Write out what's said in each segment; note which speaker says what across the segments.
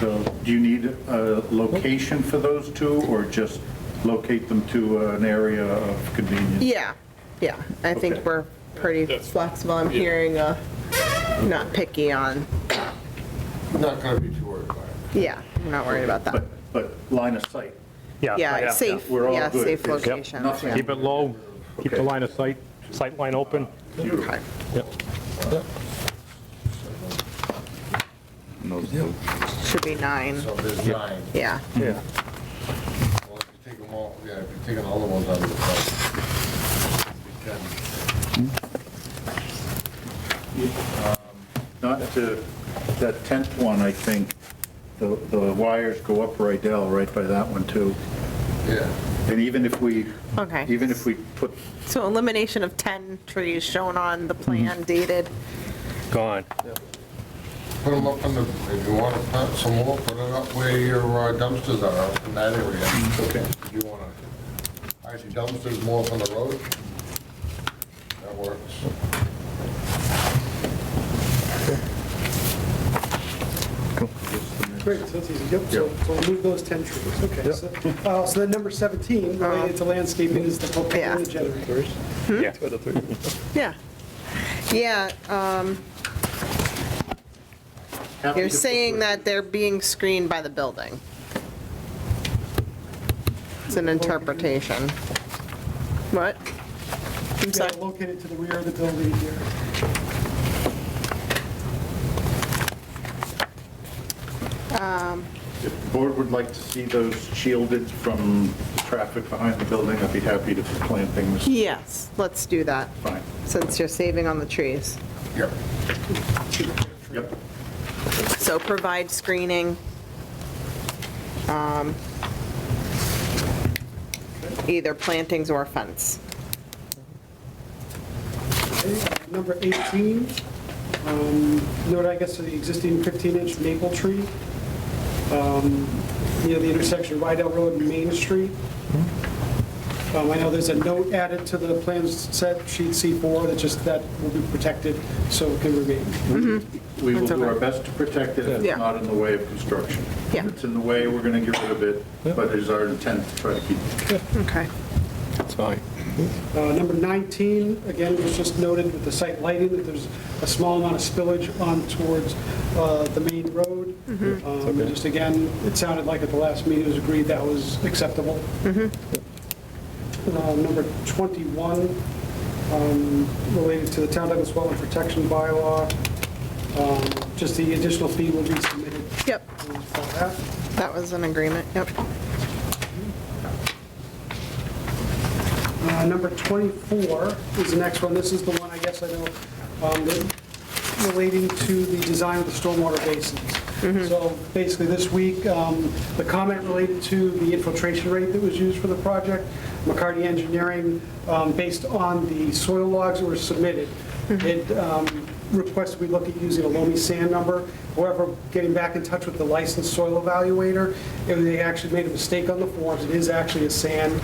Speaker 1: So do you need a location for those two, or just locate them to an area of convenience?
Speaker 2: Yeah, yeah, I
Speaker 1: Okay.
Speaker 2: think we're pretty
Speaker 3: That's-
Speaker 2: flexible, I'm
Speaker 3: yeah.
Speaker 2: hearing uh not picky on,
Speaker 4: Not gonna be too worried about it.
Speaker 2: yeah, I'm not worried about that.
Speaker 1: But, but line of sight,
Speaker 2: Yeah, safe,
Speaker 1: We're all
Speaker 2: yeah,
Speaker 1: good.
Speaker 2: safe
Speaker 1: It's
Speaker 2: location.
Speaker 1: nothing.
Speaker 2: yeah.
Speaker 5: Keep it low, keep the
Speaker 1: Okay.
Speaker 5: line of sight, sight line open.
Speaker 2: Okay. Should be nine,
Speaker 4: So there's nine.
Speaker 2: yeah,
Speaker 5: Yeah.
Speaker 4: Well, if you take them all, yeah, if you take all the ones out of the site. you can-
Speaker 1: not to, that tenth one, I think, the, the wires go up Rydell, right by that one too.
Speaker 4: Yeah,
Speaker 1: And even if we,
Speaker 2: okay.
Speaker 1: even if we put,
Speaker 2: So elimination of 10 trees shown on the plan dated,
Speaker 5: Gone.
Speaker 4: put them up in the, if you wanna put some more, put it up where your uh, dumpsters are, up in that area.
Speaker 1: okay,
Speaker 4: If you wanna, hide your dumpsters more from the road. That works.
Speaker 6: Great, so that's easy. Yep, so so we'll move those 10 trees, okay. so- uh, So then number 17, related to landscaping, is the
Speaker 2: Uh-huh. Yeah.
Speaker 6: propane generators.
Speaker 5: Yeah.
Speaker 2: yeah. Yeah, um, you're saying that they're being screened by the building. It's an interpretation. What? I'm
Speaker 6: They are
Speaker 2: sorry.
Speaker 6: located to the rear of the building here.
Speaker 1: if the board would like to see those shielded from the traffic behind the building, I'd be happy to plant things,
Speaker 2: Yes, let's do that,
Speaker 1: fine.
Speaker 2: since you're saving on the trees.
Speaker 4: Yep.
Speaker 1: Yep.
Speaker 2: So provide screening. um, Either plantings or fence.
Speaker 6: Okay, uh, Number 18, um, note, I guess, the existing 15-inch maple tree um, near the intersection of Rydell Road and Main Street. Um, I know there's a note added to the plans set, sheet C4, that just, that will be protected, so it can remain.
Speaker 1: We will
Speaker 2: That's
Speaker 1: do our
Speaker 2: okay.
Speaker 1: best to protect it, if
Speaker 2: Yeah.
Speaker 1: it's not in the way of construction. If
Speaker 2: Yeah.
Speaker 1: it's in the way, we're going to get rid of it, but it is our intent to try to keep it.
Speaker 2: Okay.
Speaker 5: That's fine.
Speaker 6: Uh, Number 19, again, was just noted with the site lighting, that there's a small amount of spillage on towards uh, the main road. Um, Just again, it sounded like at the last meeting, it was agreed that was acceptable. Uh, Number 21, um, related to the Town Douglas Wetland Protection Bylaw, Um, just the additional fee will be submitted
Speaker 2: Yep,
Speaker 6: uh, for that.
Speaker 2: that was an agreement, yep.
Speaker 6: Uh, Number 24 is the next one. This is the one, I guess I know, um, that- relating to the design of the stormwater basins. So basically, this week, um, the comment related to the infiltration rate that was used for the project, McCarty Engineering, um, based on the soil logs that were submitted, it um, requested we look at using a loamy sand number. However, getting back in touch with the licensed soil evaluator, it- they actually made a mistake on the forms. It is actually a sand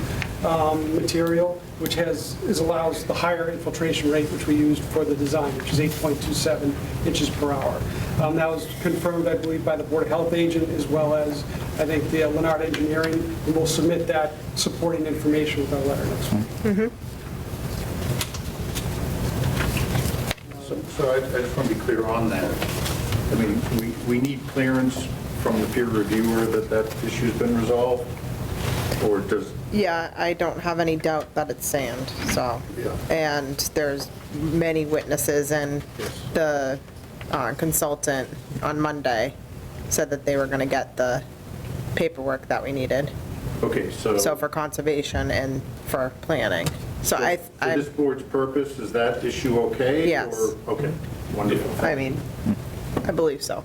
Speaker 6: um, material, which has, is allows the higher infiltration rate, which we used for the design, which is 8.27 inches per hour. Um, That was confirmed, I believe, by the Board of Health agent, as well as, I think, the Leonard Engineering, and we'll submit that supporting information with our letter next week.
Speaker 1: So- So I I just want to be clear on that. I mean, we, we need clearance from the peer reviewer that that issue's been resolved, or does,
Speaker 2: Yeah, I don't have any doubt that it's sand, so.
Speaker 1: Yeah.
Speaker 2: And there's many witnesses, and
Speaker 1: Yes.
Speaker 2: the uh, consultant on Monday said that they were going to get the paperwork that we needed,
Speaker 1: okay, so.
Speaker 2: so for conservation and for planning. So I,
Speaker 1: For
Speaker 2: I
Speaker 1: this board's purpose, is that issue okay?
Speaker 2: Yes.
Speaker 1: or- Okay, wonderful.
Speaker 2: I mean, I believe so.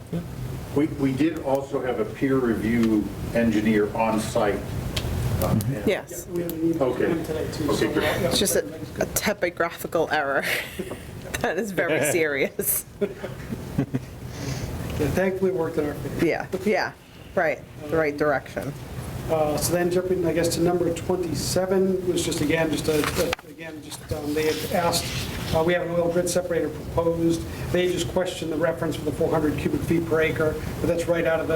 Speaker 1: We, we did also have a peer review engineer on site. um, and-
Speaker 2: Yes,
Speaker 6: We have an email
Speaker 1: Okay.
Speaker 6: from today, too.
Speaker 1: Okay,
Speaker 6: so- uh,
Speaker 1: great.
Speaker 2: it's just a a typographical error that is very serious.
Speaker 6: Yeah, Thankfully, it worked in our favor.
Speaker 2: Yeah, yeah, right, the right direction.
Speaker 6: Uh, So then jumping, I guess, to number 27, was just again, just a, a- again, just, um, they had asked, uh, we have an oil grid separator proposed. They just questioned the reference for the 400 cubic feet per acre, but that's right out of the